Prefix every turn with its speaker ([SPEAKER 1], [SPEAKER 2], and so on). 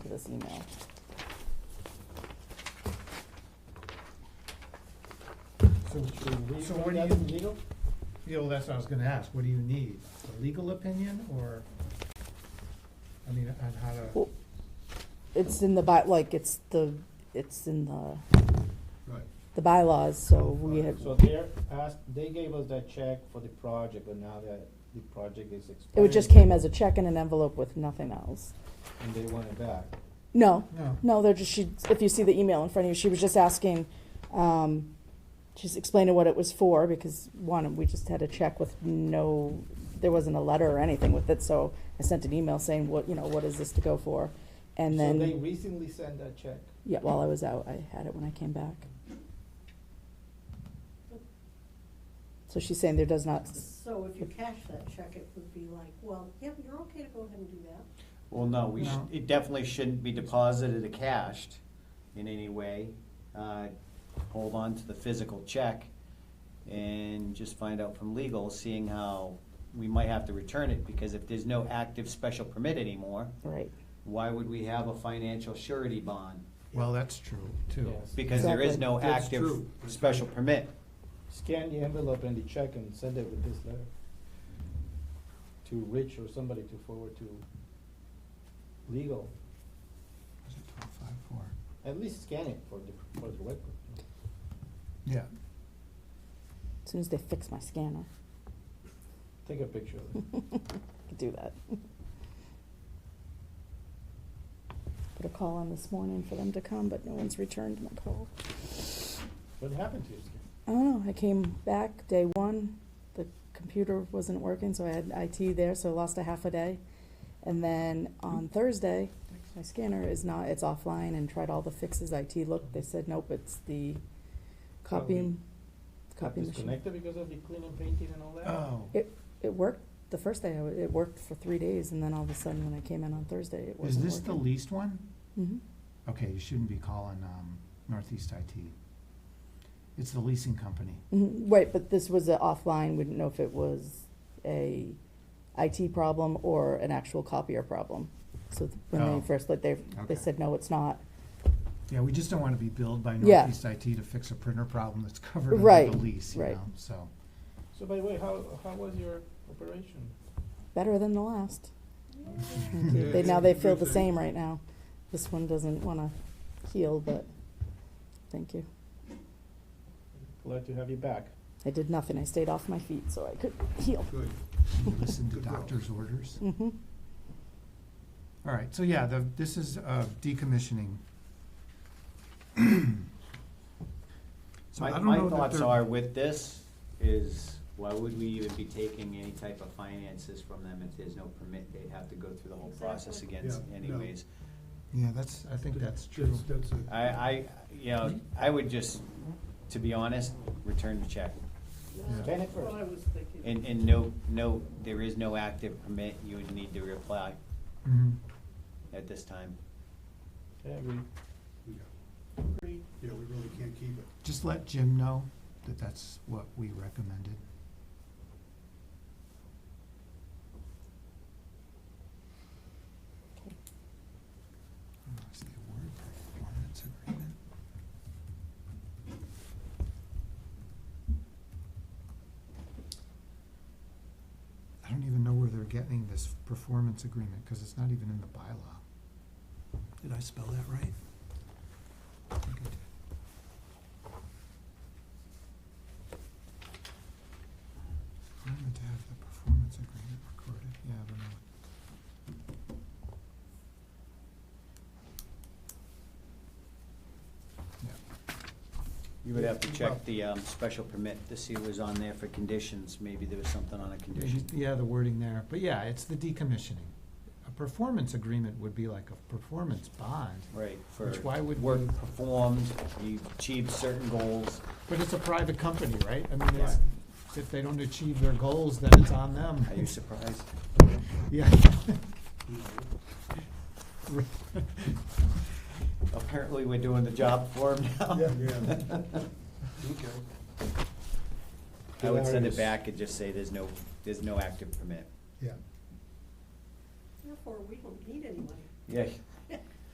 [SPEAKER 1] his email.
[SPEAKER 2] So should we
[SPEAKER 3] So
[SPEAKER 2] put
[SPEAKER 3] what do
[SPEAKER 2] that
[SPEAKER 3] you-
[SPEAKER 2] in legal?
[SPEAKER 3] Yeah, well, that's what I was gonna ask, what do you need, a legal opinion, or, I mean, on how to,
[SPEAKER 1] Well, It's in the by, like, it's the, it's in the,
[SPEAKER 4] Right.
[SPEAKER 1] the bylaws, so we have,
[SPEAKER 2] So they're asked, they gave us that check for the project, but now that the project is
[SPEAKER 1] it
[SPEAKER 2] expired.
[SPEAKER 1] would just came as a check in an envelope with nothing else.
[SPEAKER 2] And they want it back.
[SPEAKER 1] No,
[SPEAKER 3] no,
[SPEAKER 1] no, they're just, she, if you see the email in front of you, she was just asking, um, she's explaining what it was for, because one, we just had a check with no, there wasn't a letter or anything with it, so I sent an email saying, what, you know, what is this to go for? And then.
[SPEAKER 2] So they recently sent that check.
[SPEAKER 1] Yeah, while I was out, I had it when I came back. So she's saying there does not,
[SPEAKER 5] So if you cash that check, it would be like, well, yep, you're okay to go ahead and do that.
[SPEAKER 6] Well, no, we
[SPEAKER 3] No.
[SPEAKER 6] should, it definitely shouldn't be deposited or cashed in any way. Uh, Hold on to the physical check and just find out from legal, seeing how we might have to return it, because if there's no active special permit anymore,
[SPEAKER 1] right,
[SPEAKER 6] why would we have a financial surety bond?
[SPEAKER 3] well, that's true, too.
[SPEAKER 2] Yes.
[SPEAKER 6] Because there is
[SPEAKER 1] Exactly.
[SPEAKER 6] no
[SPEAKER 4] That's
[SPEAKER 6] active
[SPEAKER 4] true.
[SPEAKER 6] special permit
[SPEAKER 2] Scan the envelope and the check and send it with this letter to Rich or somebody to forward to legal.
[SPEAKER 3] Is it 1254?
[SPEAKER 2] At least scan it for the, for the record.
[SPEAKER 3] Yeah,
[SPEAKER 1] as soon as they fix my scanner,
[SPEAKER 2] Take a picture of it.
[SPEAKER 1] could do that. Put a call on this morning for them to come, but no one's returned my call.
[SPEAKER 2] What happened to your scan?
[SPEAKER 1] I don't know, I came back day one, the computer wasn't working, so I had IT there, so I lost a half a day. And then on Thursday, my scanner is not, it's offline and tried all the fixes, IT looked, they said, nope, it's the copying, copy machine. Ah.
[SPEAKER 2] Disconnected because of the clean and painting and all that?
[SPEAKER 3] oh,
[SPEAKER 1] It, it worked, the first day, I w- it worked for three days, and then all of a sudden, when I came in on Thursday, it
[SPEAKER 3] is
[SPEAKER 1] wasn't
[SPEAKER 3] this the
[SPEAKER 1] working.
[SPEAKER 3] least one?
[SPEAKER 1] Mhm.
[SPEAKER 3] Okay, you shouldn't be calling, um, Northeast IT. It's the leasing company.
[SPEAKER 1] Mhm. Right, but this was a offline, we didn't know if it was a IT problem or an actual copier problem. So th- when
[SPEAKER 3] Oh.
[SPEAKER 1] they first, like, they,
[SPEAKER 3] Okay.
[SPEAKER 1] they said, no, it's not.
[SPEAKER 3] Yeah, we just don't wanna be billed by
[SPEAKER 1] Yeah.
[SPEAKER 3] Northeast IT to fix a printer problem that's covered under
[SPEAKER 1] Right,
[SPEAKER 3] the lease, you
[SPEAKER 1] right.
[SPEAKER 3] know, so.
[SPEAKER 2] So by the way, how, how was your operation?
[SPEAKER 1] Better than the last.
[SPEAKER 4] Yeah,
[SPEAKER 1] They,
[SPEAKER 4] it's
[SPEAKER 1] now
[SPEAKER 4] a
[SPEAKER 1] they
[SPEAKER 4] good
[SPEAKER 1] feel the
[SPEAKER 4] thing.
[SPEAKER 1] same right now. This one doesn't wanna heal, but, thank you.
[SPEAKER 2] Glad to have you back.
[SPEAKER 1] I did nothing, I stayed off my feet so I could heal.
[SPEAKER 4] Good.
[SPEAKER 3] You listen to
[SPEAKER 4] Good girl.
[SPEAKER 3] doctor's orders.
[SPEAKER 1] hmm
[SPEAKER 3] All right, so yeah, the, this is, uh, decommissioning. So I
[SPEAKER 6] My,
[SPEAKER 3] don't
[SPEAKER 6] my
[SPEAKER 3] know that
[SPEAKER 6] thoughts
[SPEAKER 3] they're-
[SPEAKER 6] are with this is, why would we even be taking any type of finances from them if there's no permit? They'd have to go through the whole process
[SPEAKER 5] Exactly.
[SPEAKER 6] again
[SPEAKER 4] Yeah, no.
[SPEAKER 6] anyways.
[SPEAKER 3] Yeah, that's, I think that's true.
[SPEAKER 4] That's it.
[SPEAKER 6] I, I, you know, I would just, to be honest, return the check.
[SPEAKER 5] That's
[SPEAKER 2] Scan it first.
[SPEAKER 5] What I was thinking.
[SPEAKER 6] And, and no, no, there is no active permit, you would need to reapply
[SPEAKER 3] Mhm.
[SPEAKER 6] at this time.
[SPEAKER 2] Yeah, I agree.
[SPEAKER 4] Yeah,
[SPEAKER 5] Agreed.
[SPEAKER 4] Yeah, we really can't keep it.
[SPEAKER 3] Just let Jim know that that's what we recommended. Oh, is the award performance agreement? I don't even know where they're getting this performance agreement, cause it's not even in the bylaw. Did I spell that right? I think I did. I'm going to have the performance agreement recorded, yeah, I don't know.
[SPEAKER 6] You would have to
[SPEAKER 3] Well-
[SPEAKER 6] check the, um, special permit to see what was on there for conditions, maybe there was something on a condition.
[SPEAKER 3] Yeah, the wording there, but yeah, it's the decommissioning. A performance agreement would be like a performance bond,
[SPEAKER 6] Right, for
[SPEAKER 3] which why would
[SPEAKER 6] work
[SPEAKER 3] we,
[SPEAKER 6] performed, you achieved certain goals,
[SPEAKER 3] but it's a private company, right? I mean, it's, if they don't achieve their goals, then it's on them.
[SPEAKER 6] are you surprised?
[SPEAKER 3] Yeah.
[SPEAKER 4] you know.
[SPEAKER 6] Apparently, we're doing the job for him now.
[SPEAKER 4] Yeah, yeah. Okay.
[SPEAKER 6] I would send
[SPEAKER 2] Hilarious.
[SPEAKER 6] it back and just say there's no, there's no active permit.
[SPEAKER 3] Yeah.
[SPEAKER 5] Therefore, we don't need any money.
[SPEAKER 6] Yeah,